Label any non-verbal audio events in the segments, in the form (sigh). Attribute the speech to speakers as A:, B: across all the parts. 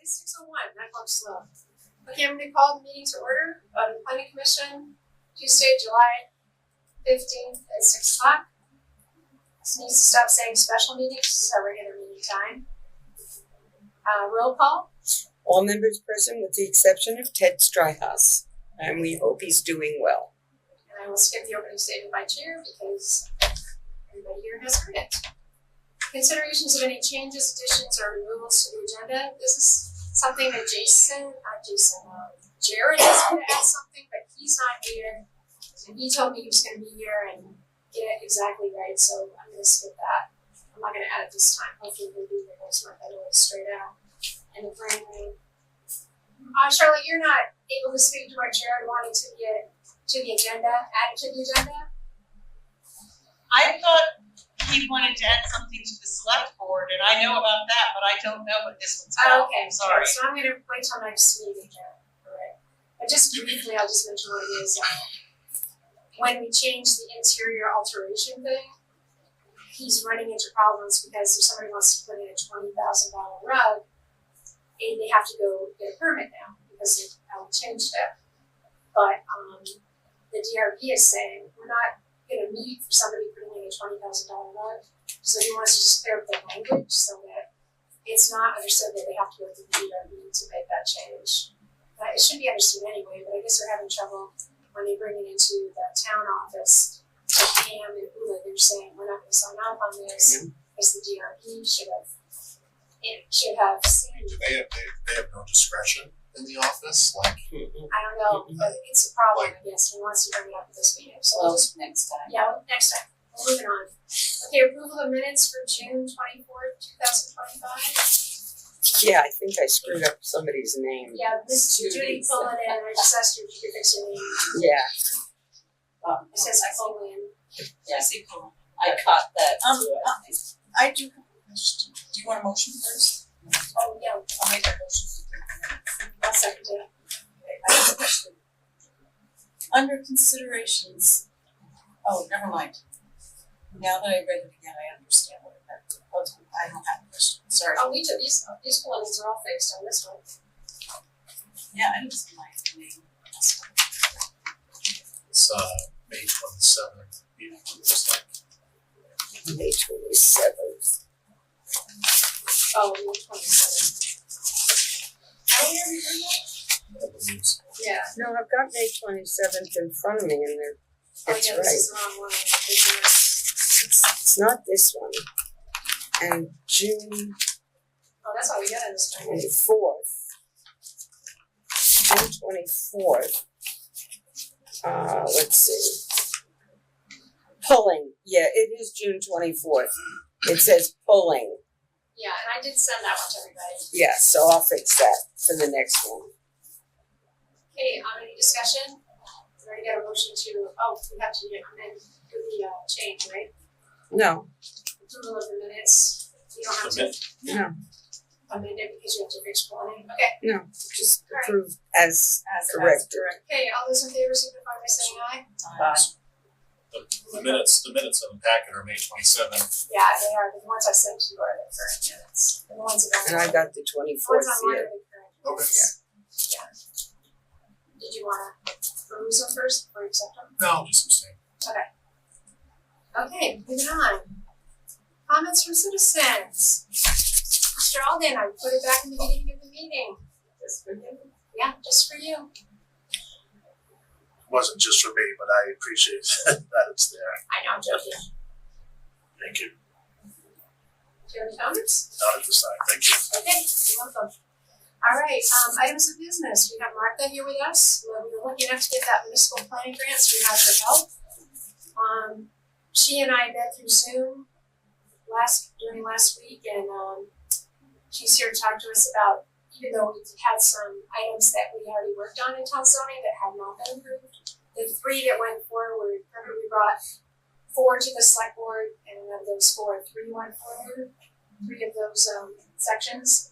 A: It's six oh one, that clock's slow. Okay, I'm gonna call the meeting to order of the planning commission, Tuesday, July fifteenth at six o'clock. Just needs to stop saying special meetings, this is our regular meeting time. Uh, roll call,
B: All members present with the exception of Ted Stryhouse, and we hope he's doing well.
A: and I will skip the opening statement by chair because everybody here has heard it. Considerations of any changes, additions, or removals to the agenda, this is something that Jason, uh, Jason, uh, Jared is gonna add something, but he's not here. And he told me he was gonna be here and get it exactly right, so I'm gonna skip that. I'm not gonna add it this time, hopefully we'll do the next month, that'll be straight out. And the brand new. Uh, Charlotte, you're not able to speak to what Jared wanted to get to the agenda, add it to the agenda.
C: I thought he wanted to add something to the select board, and I know about that, but I don't know what this one's
D: Oh,
C: about, I'm sorry.
A: So Oh, I'm gonna wait till next meeting, Jared, alright? But just briefly, I'll just mention what it is, uh, when we change the interior alteration thing, he's running into problems because if somebody wants to put in a twenty thousand dollar rug, and they have to go get a permit now because they have changed it. But, um, the DRB is saying, we're not gonna meet for somebody putting in a twenty thousand dollar rug, so he wants to just clear up the language so that it's not understood that they have to go through the DRB to make that change. Uh, it should be understood anyway, but I guess they're having trouble when they bring it into the town office. to Pam and Ula, they're saying, we're not gonna sign off on this, because the DRB should have, it should have seen,
E: They have, they, they have no discretion in the office, like,
A: I don't know, but it's a problem, I guess, he wants to bring it up at this meeting, so I'll just
B: next time.
A: yeah, well, next time, We're moving on. Okay, approval of minutes for June twenty-fourth, two thousand twenty-five.
B: Yeah, I think I screwed up somebody's name.
A: Yeah, this is Judy
B: Judy.
A: Pullen and I just asked her if you could fix her name.
B: Yeah,
D: Um,
A: It says Pullen.
C: Yeah.
D: I caught that
C: Um,
D: too, I think.
C: I do have a question. Do you want a motion first?
A: Oh, yeah,
C: I'll make that motion. to approve the minutes.
A: I'll second it.
C: I have a question. Under considerations, oh, never mind. Now that I read it again, I understand what it meant. Okay, I don't have a question, sorry.
A: Oh, we took these, these ones are all fixed on this one.
C: Yeah, I didn't see my name.
E: it's, uh, May twenty-seventh, you know, it's just like,
B: May twenty seventh.
A: Oh, one twenty-seven. I don't remember that.
E: I believe so.
A: Yeah.
B: No, I've got May twenty seventh in front of me and there,
A: Oh,
B: That's
A: yeah, this is the wrong one. Oh, This is-
B: it's not this one. And June
A: Oh, that's all we got in this one.
B: twenty fourth. June twenty fourth. Uh, let's see. Pulling, yeah, it is June twenty fourth. It says pulling.
A: Yeah, and I did send that one to everybody.
B: Yeah, so I'll fix that for the next one.
A: Okay, um, any discussion? We already got a motion to, oh, we have to amend, do the, uh, change, right?
B: No,
A: approval of the minutes, you don't have to.
E: Amend.
B: No.
A: Amend it because you have to fix one, okay,
B: just approve as corrected.
A: okay, all those in favor signify by saying aye?
E: The, the minutes, the minutes in the packet are May twenty-seventh,
A: Yeah, they are, the ones I sent you are the current minutes, the ones that
B: And I
A: are,
B: got the twenty
A: the
B: fourth
A: ones online
B: here.
A: are the current minutes. Yeah. Did you wanna peruse them first or accept them?
E: no, just the same.
A: Okay, moving on. Comments from citizens. Mr. Alden, I put it back in the beginning of the meeting. Just for you? Yeah, just for you.
E: It Wasn't just for me, but I appreciate (laughs) that it's there,
A: I know, I'm joking.
E: thank you,
A: Do you have any comments?
E: not at this time, thank you.
A: Okay, you're welcome. All right, um, items of business, we have Martha here with us, Well, we were lucky enough to get that municipal planning grant, so we have her help. Um, she and I met through Zoom last, during last week, and, um, she's here to talk to us about, even though we had some items that we already worked on in town zoning that had not been approved, the three that went forward, remember we brought four to the select board, and of those four, three went forward three of those um sections.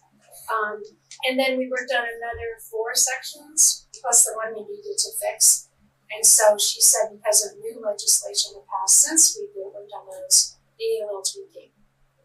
A: Um and then we worked on another four sections plus the one we needed to fix. And so she said because of new legislation that passed since we worked on those, they need a little tweaking.